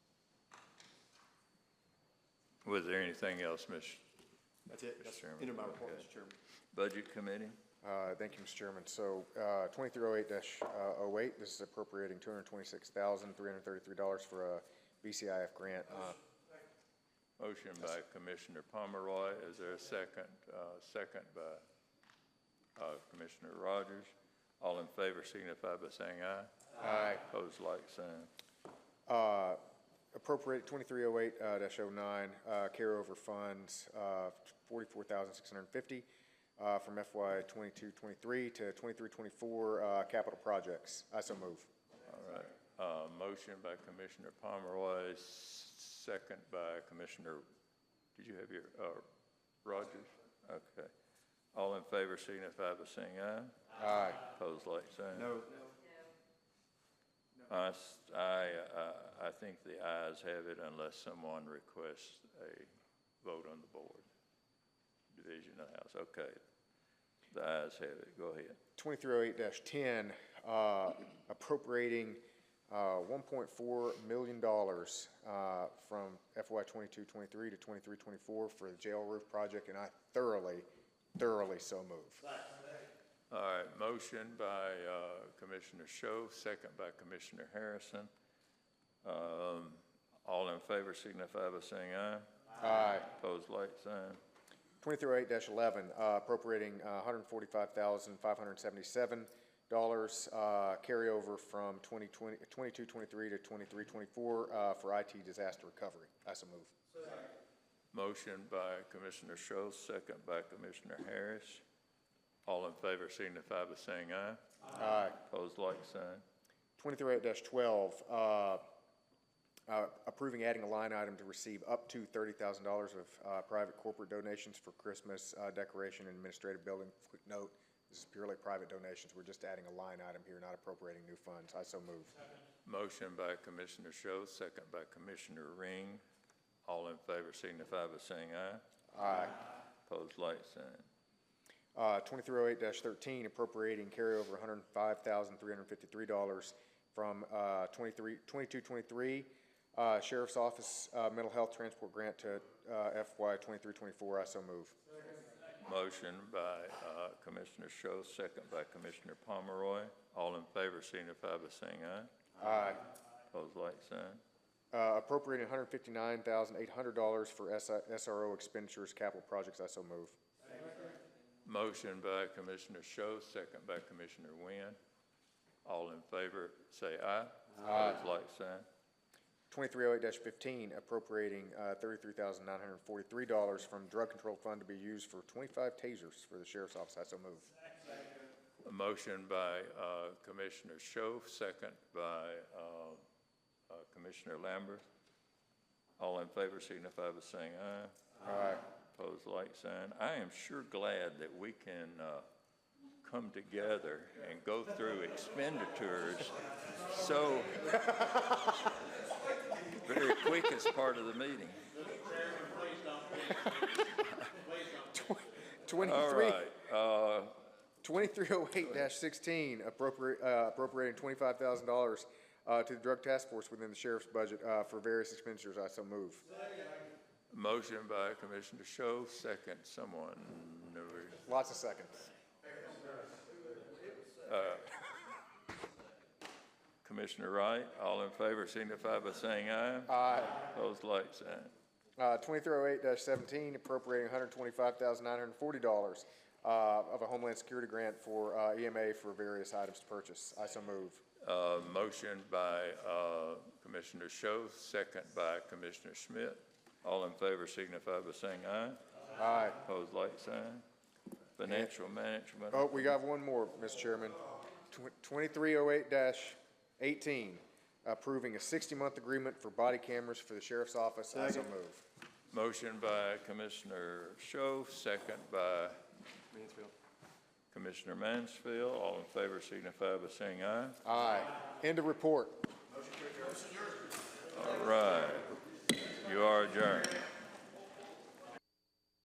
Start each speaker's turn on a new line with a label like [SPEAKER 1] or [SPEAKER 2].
[SPEAKER 1] Was there anything else, Mr.
[SPEAKER 2] That's it. That's
[SPEAKER 1] Chairman.
[SPEAKER 2] end of my report,
[SPEAKER 1] Okay.
[SPEAKER 2] Mr. Chairman.
[SPEAKER 1] Budget Committee?
[SPEAKER 3] Uh, Thank you, Mr. Chairman. So twenty-three oh eight 8 this is appropriating two hundred twenty-six thousand, three hundred thirty-three dollars for a BCIF grant. Uh,
[SPEAKER 1] Motion by Commissioner Pomeroy, is there a second? Uh, Second by uh, Commissioner Rogers. All in favor signify by saying aye.
[SPEAKER 3] Aye.
[SPEAKER 1] Pose like sign.
[SPEAKER 3] Uh, Appropriate 2308-09, uh, carryover funds, uh, 44650 uh, from FY 22-23 to 23-24 uh, capital projects. I so move.
[SPEAKER 1] All right. Uh, Motion by Commissioner Pomeroy, s- second by Commissioner, did you have your, uh, Rogers? Okay. All in favor signify by saying aye.
[SPEAKER 3] Aye.
[SPEAKER 1] Pose like sign.
[SPEAKER 2] No,
[SPEAKER 1] I, s- I- uh, I- I think the ayes have it unless someone requests a vote on the board. Division of the House, okay. The ayes have it, go ahead.
[SPEAKER 3] 2308-10, uh, appropriating uh, $1.4 million uh, from FY 22-23 to 23-24 for the jail roof project, and I thoroughly, thoroughly so move.
[SPEAKER 1] All right, motion by uh, Commissioner Sho, second by Commissioner Harrison. Um, All in favor signify by saying aye.
[SPEAKER 3] Aye.
[SPEAKER 1] Opposed, like sign.
[SPEAKER 3] 2308-11, uh, appropriating uh, $145,577 uh, carryover from 2020 22-23 to 23-24 uh, for IT disaster recovery. I so move.
[SPEAKER 1] Motion by Commissioner Sho, second by Commissioner Harris. All in favor signify by saying aye.
[SPEAKER 3] Aye.
[SPEAKER 1] Opposed, like sign.
[SPEAKER 3] 2308-12, uh, uh, approving adding a line item to receive up to $30,000 of uh, private corporate donations for Christmas uh, decoration and administrative building. Quick note, this is purely private donations. We're just adding a line item here, not appropriating new funds. I so move.
[SPEAKER 1] Motion by Commissioner Sho, second by Commissioner Ring. All in favor signify by saying aye.
[SPEAKER 3] Aye.
[SPEAKER 1] Opposed, like sign.
[SPEAKER 3] Uh, 2308-13, appropriating carryover $105,353 from uh, 23 22-23 uh, Sheriff's Office uh, Mental Health Transport Grant to uh, FY 23-24. I so move.
[SPEAKER 1] Motion by uh, Commissioner Sho, second by Commissioner Pomeroy. All in favor signify by saying aye.
[SPEAKER 3] Aye.
[SPEAKER 1] Opposed, like sign.
[SPEAKER 3] Uh, Appropriating $159,800 for SI SRO expenditures, capital projects. I so move.
[SPEAKER 1] Motion by Commissioner Sho, second by Commissioner Wynn. All in favor, say aye. Opposed, like sign.
[SPEAKER 3] 2308-15, appropriating uh, $33,943 from Drug Control Fund to be used for 25 tasers for the Sheriff's Office. I so move.
[SPEAKER 1] A motion by uh, Commissioner Sho, second by uh, uh, Commissioner Lambert. All in favor signify by saying aye.
[SPEAKER 3] Aye.
[SPEAKER 1] Pose like sign. I am sure glad that we can uh, come together and go through expenditures so very quick as part of the meeting. All
[SPEAKER 3] 23.
[SPEAKER 1] right, uh,
[SPEAKER 3] 2308-16, appropriate- uh, appropriating $25,000 uh, to the Drug Task Force within the sheriff's budget uh, for various expenditures. I so move.
[SPEAKER 1] motion by Commissioner Sho, second, someone,
[SPEAKER 3] Lots of seconds.
[SPEAKER 1] Commissioner Wright. All in favor signify by saying aye.
[SPEAKER 3] Uh,
[SPEAKER 1] Pose like sign.
[SPEAKER 3] uh, 2308-17, appropriating $125,940 uh, of a Homeland Security grant for uh, EMA for various items to purchase. I so move.
[SPEAKER 1] Uh, Motion by uh, Commissioner Sho, second by Commissioner Schmidt. All in favor signify by saying aye.
[SPEAKER 3] Aye.
[SPEAKER 1] Pose like sign. Financial management,
[SPEAKER 3] Oh, we got one more, Mr. Chairman. Twenty-three oh eight eighteen, approving a sixty-month agreement for body cameras for the sheriff's office. I so move.
[SPEAKER 1] motion by Commissioner Sho, second by
[SPEAKER 2] Mansfield.
[SPEAKER 1] Commissioner Mansfield. All in favor signify by saying aye.
[SPEAKER 3] Aye. End of report.
[SPEAKER 1] All right. You are adjourned.